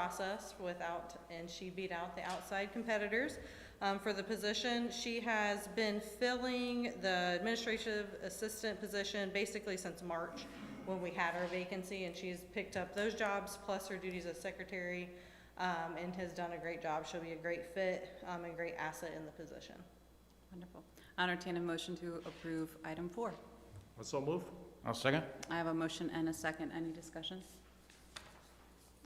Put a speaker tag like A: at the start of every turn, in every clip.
A: process without, and she beat out the outside competitors. Um, for the position, she has been filling the administrative assistant position basically since March when we had our vacancy, and she's picked up those jobs plus her duties as secretary, um, and has done a great job. She'll be a great fit, um, and great asset in the position.
B: Wonderful. I Entertain a motion to approve item four.
C: I so move.
D: I'll second.
B: I have a motion and a second. Any discussion?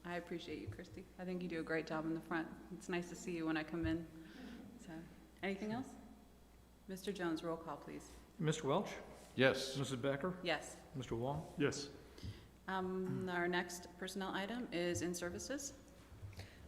B: I appreciate you, Christy. I think you do a great job in the front. It's nice to see you when I come in. So, anything else? Mr. Jones, roll call, please.
E: Mr. Welch,
D: Yes.
E: Mrs. Becker,
B: Yes.
E: Mr. Wong,
C: Yes.
B: Um, our next personnel item is in services.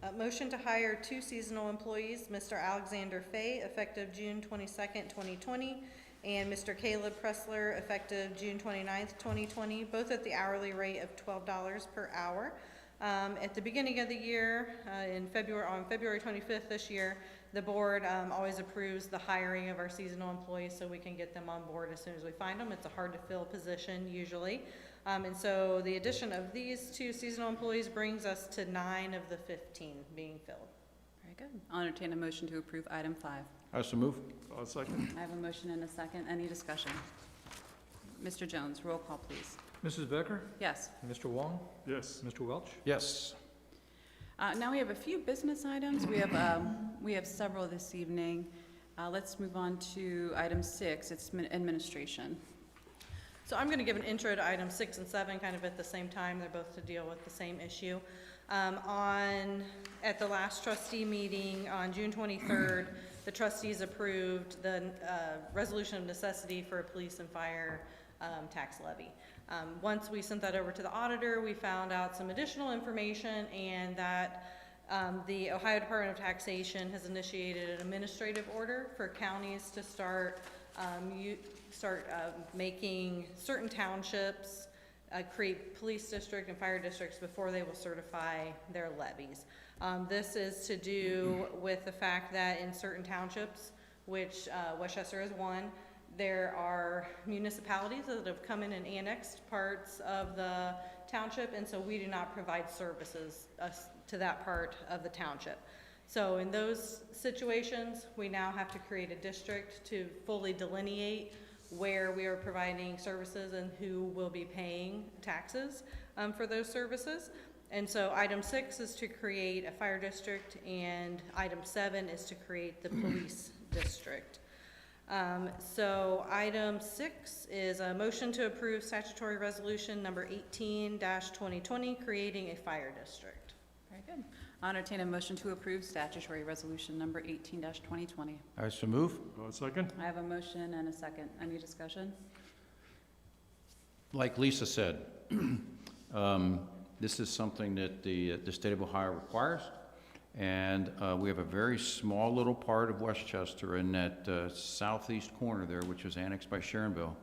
A: Uh, motion to hire two seasonal employees, Mr. Alexander Fay, effective June twenty-second, twenty twenty, and Mr. Caleb Pressler, effective June twenty-ninth, twenty twenty, both at the hourly rate of twelve dollars per hour. Um, at the beginning of the year, uh, in February, on February twenty-fifth this year, the board, um, always approves the hiring of our seasonal employees so we can get them on board as soon as we find them. It's a hard-to-fill position usually. Um, and so the addition of these two seasonal employees brings us to nine of the fifteen being filled.
B: Very good. I'll entertain a motion to approve item five.
D: I so move.
C: I'll Uh, second.
B: I have a motion and a second. Any discussion? Mr. Jones, roll call, please.
E: Mrs. Becker,
B: Yes.
E: Mr. Wong,
C: Yes.
E: Mr. Welch,
D: Yes.
B: Uh, Now we have a few business items. We have, um, we have several this evening. Uh, Let's move on to item six, it's min- administration.
A: So I'm gonna give an intro to item six and seven kind of at the same time, they're both to deal with the same issue. Um, on, at the last trustee meeting on June twenty-third, the trustees approved the, uh, resolution of necessity for a police and fire, um, tax levy. Um, once we sent that over to the auditor, we found out some additional information and that Um, the Ohio Department of Taxation has initiated an administrative order for counties to start, um, you, start, uh, making certain townships, uh, create police district and fire districts before they will certify their levies. Um, this is to do with the fact that in certain townships, which, uh, Westchester is one, there are municipalities that have come in and annexed parts of the township, and so we do not provide services us- to that part of the township. So in those situations, we now have to create a district to fully delineate where we are providing services and who will be paying taxes um, for those services. And so item six is to create a fire district, and item seven is to create the police district. Um, so item six is a motion to approve statutory resolution number eighteen twenty twenty, creating a fire district.
B: Very good. I'll entertain a motion to approve statutory resolution number eighteen twenty twenty.
D: I so move.
C: I'll Uh, second.
B: I have a motion and a second. Any discussion?
D: Like Lisa said, um, this is something that the, uh, the state of Ohio requires. And uh, we have a very small little part of Westchester in that uh, southeast corner there, which was annexed by Sharonville,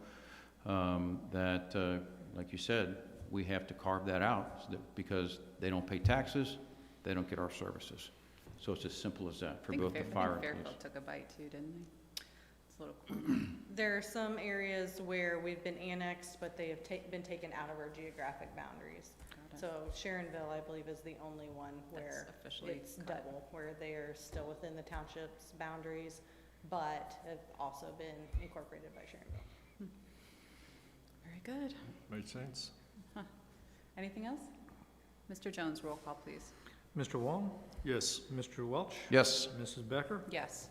D: um, that, uh, like you said, we have to carve that out so that- because they don't pay taxes, they don't get our services. So it's as simple as that
B: I
D: for
B: think
D: both
B: Fair-
D: the
B: I think
D: fire and police.
B: Fairfield took a bite too, didn't they? It's a little cool.
A: There are some areas where we've been annexed, but they have ta- been taken out of our geographic boundaries.
B: Got it.
A: So Sharonville, I believe, is the only one
B: That's
A: where
B: officially.
A: it's
B: cut.
A: double, where they are still within the township's boundaries, but have also been incorporated by Sharonville.
B: Very good.
C: Made sense.
B: Anything else? Mr. Jones, roll call, please.
E: Mr. Wong,
C: Yes.
E: Mr. Welch,
D: Yes.
E: Mrs. Becker,
B: Yes.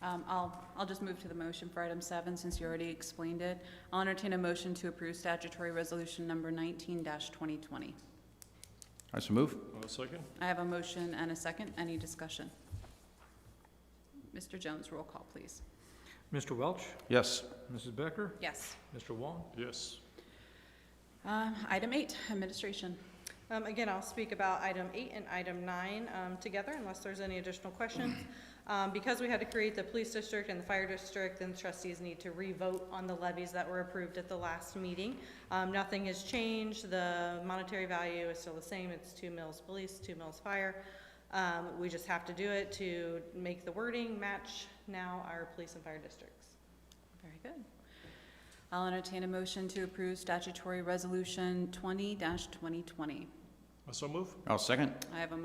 B: Um, I'll, I'll just move to the motion for item seven, since you already explained it. I'll entertain a motion to approve statutory resolution number nineteen twenty twenty.
D: I so move.
C: I'll Uh, second.
B: I have a motion and a second. Any discussion? Mr. Jones, roll call, please.
E: Mr. Welch,
D: Yes.
E: Mrs. Becker,
B: Yes.
E: Mr. Wong,
C: Yes.
B: Um, item eight, administration.
A: Um, again, I'll speak about item eight and item nine, um, together unless there's any additional questions. Um, because we had to create the police district and the fire district, then trustees need to re-vote on the levies that were approved at the last meeting. Um, nothing has changed, the monetary value is still the same, it's two mills police, two mills fire. Um, we just have to do it to make the wording match now our police and fire districts.
B: Very good. I'll entertain a motion to approve statutory resolution twenty twenty twenty.
C: I so move.
D: I'll second.
B: I have a